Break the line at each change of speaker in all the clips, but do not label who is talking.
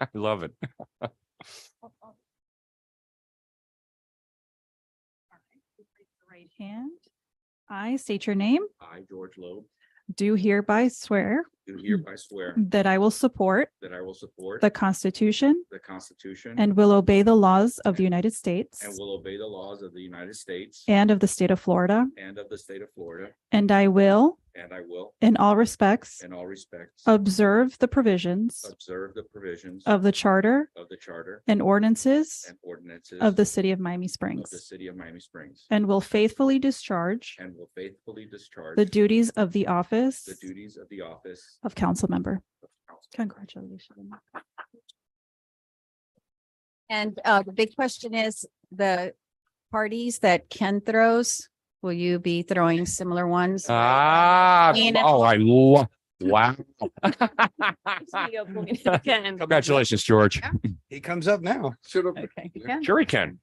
I love it.
Right hand. I state your name,
I, George Loeb,
do hereby swear
do hereby swear
that I will support
that I will support
Mm-hmm. the Constitution
the Constitution
and will obey the laws of the United States
and will obey the laws of the United States
and of the state of Florida,
and of the state of Florida,
and I will,
and I will,
in all respects,
in all respects,
observe the provisions
observe the provisions
of the charter
of the charter
and ordinances
and ordinances
of the city of Miami
of the
Springs,
city of Miami Springs,
and will faithfully discharge
and will faithfully discharge
the duties of the office
the duties of the office
of council member.
of council.
Congratulations.
And uh, the big question is the parties that Ken throws, will you be throwing similar ones?
Ah,
And-
oh, I love, wow. Congratulations, George.
He comes up now. Should have.
Okay.
Sure he can.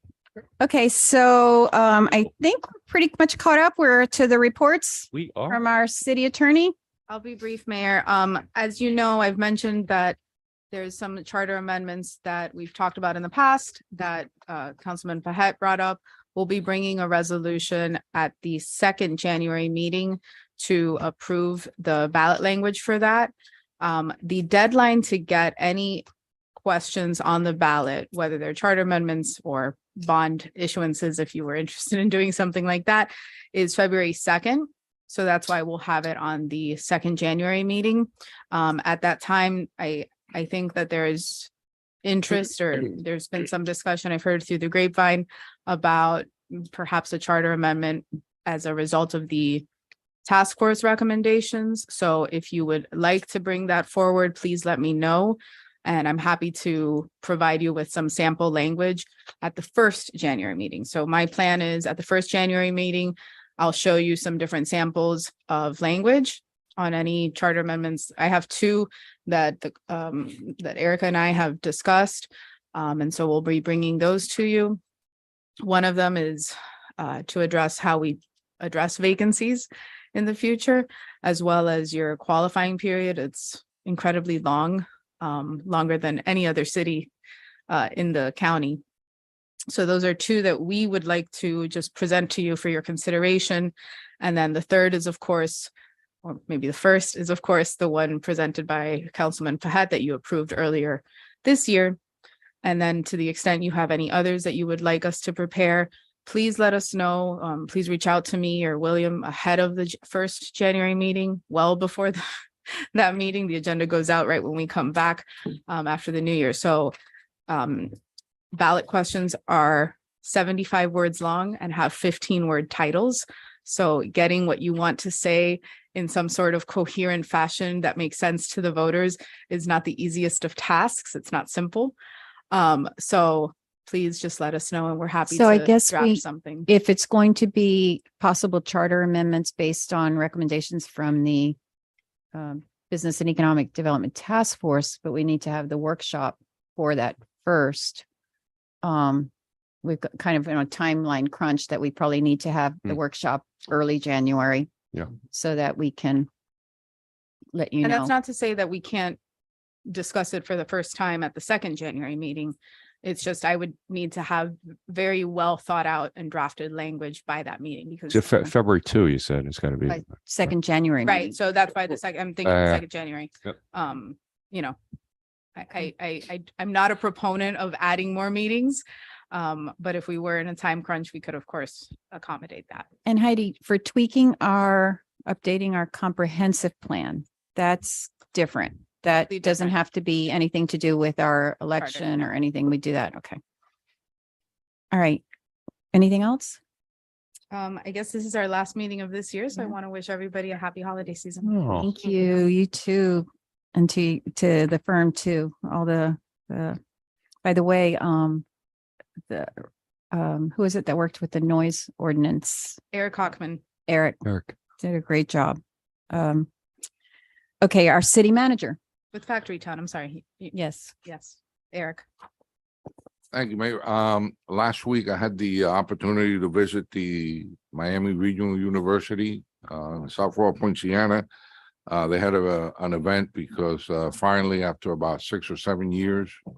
Okay, so um, I think we're pretty much caught up. We're to the reports
We are.
from our city attorney.
I'll be brief, Mayor. Um, as you know, I've mentioned that there's some charter amendments that we've talked about in the past that uh Councilman Pahet brought up. We'll be bringing a resolution at the second January meeting to approve the ballot language for that. Um, the deadline to get any questions on the ballot, whether they're charter amendments or bond issuances, if you were interested in doing something like that, is February second. So that's why we'll have it on the second January meeting. Um, at that time, I, I think that there is interest or there's been some discussion I've heard through the grapevine about perhaps a charter amendment as a result of the task force recommendations. So if you would like to bring that forward, please let me know. And I'm happy to provide you with some sample language at the first January meeting. So my plan is at the first January meeting, I'll show you some different samples of language on any charter amendments. I have two that the, um, that Erica and I have discussed. Um, and so we'll be bringing those to you. One of them is, uh, to address how we address vacancies in the future, as well as your qualifying period. It's incredibly long, um, longer than any other city, uh, in the county. So those are two that we would like to just present to you for your consideration. And then the third is, of course, or maybe the first is, of course, the one presented by Councilman Fahad that you approved earlier this year. And then to the extent you have any others that you would like us to prepare, please let us know. Um, please reach out to me or William ahead of the j- first January meeting, well before the- that meeting. The agenda goes out right when we come back um, after the new year. So um, ballot questions are seventy-five words long and have fifteen-word titles. So getting what you want to say in some sort of coherent fashion that makes sense to the voters is not the easiest of tasks. It's not simple. Um, so please just let us know and we're happy
So I
to
guess we-
draft something.
If it's going to be possible charter amendments based on recommendations from the um, Business and Economic Development Task Force, but we need to have the workshop for that first. Um, we've got kind of in a timeline crunch that we probably need to have the
Hmm.
workshop early January.
Yeah.
So that we can let you
And that's
know.
not to say that we can't discuss it for the first time at the second January meeting. It's just I would need to have very well thought out and drafted language by that meeting because.
It's Fe- February two, you said. It's gotta be.
Right. Second January. meeting.
Right, so that's why the second, I'm thinking
Uh,
the second January.
yep.
Um, you know, I, I, I, I, I'm not a proponent of adding more meetings. Um, but if we were in a time crunch, we could of course accommodate that.
And Heidi, for tweaking our, updating our comprehensive plan, that's different. That
Completely
doesn't
different.
have to be anything to do with our election or anything. We do that. Okay. All right. Anything else?
Um, I guess this is our last meeting of this year, so I
Yeah.
want to wish everybody a happy holiday season. Mm-hmm.
Oh,
Thank you. You too. And to, to the firm too, all the, the, by the way, um, the, um, who is it that worked with the noise ordinance?
Eric Hockman.
Eric
Eric.
did a great job. Um, okay, our city manager.
With Factory Town, I'm sorry. He- he-
Yes.
Yes, Eric.
Thank you, Mayor. Um, last week I had the opportunity to visit the Miami Regional University, uh, South Florida, Poinciana. Uh, they had a, an event because, uh, finally, after about six or seven years,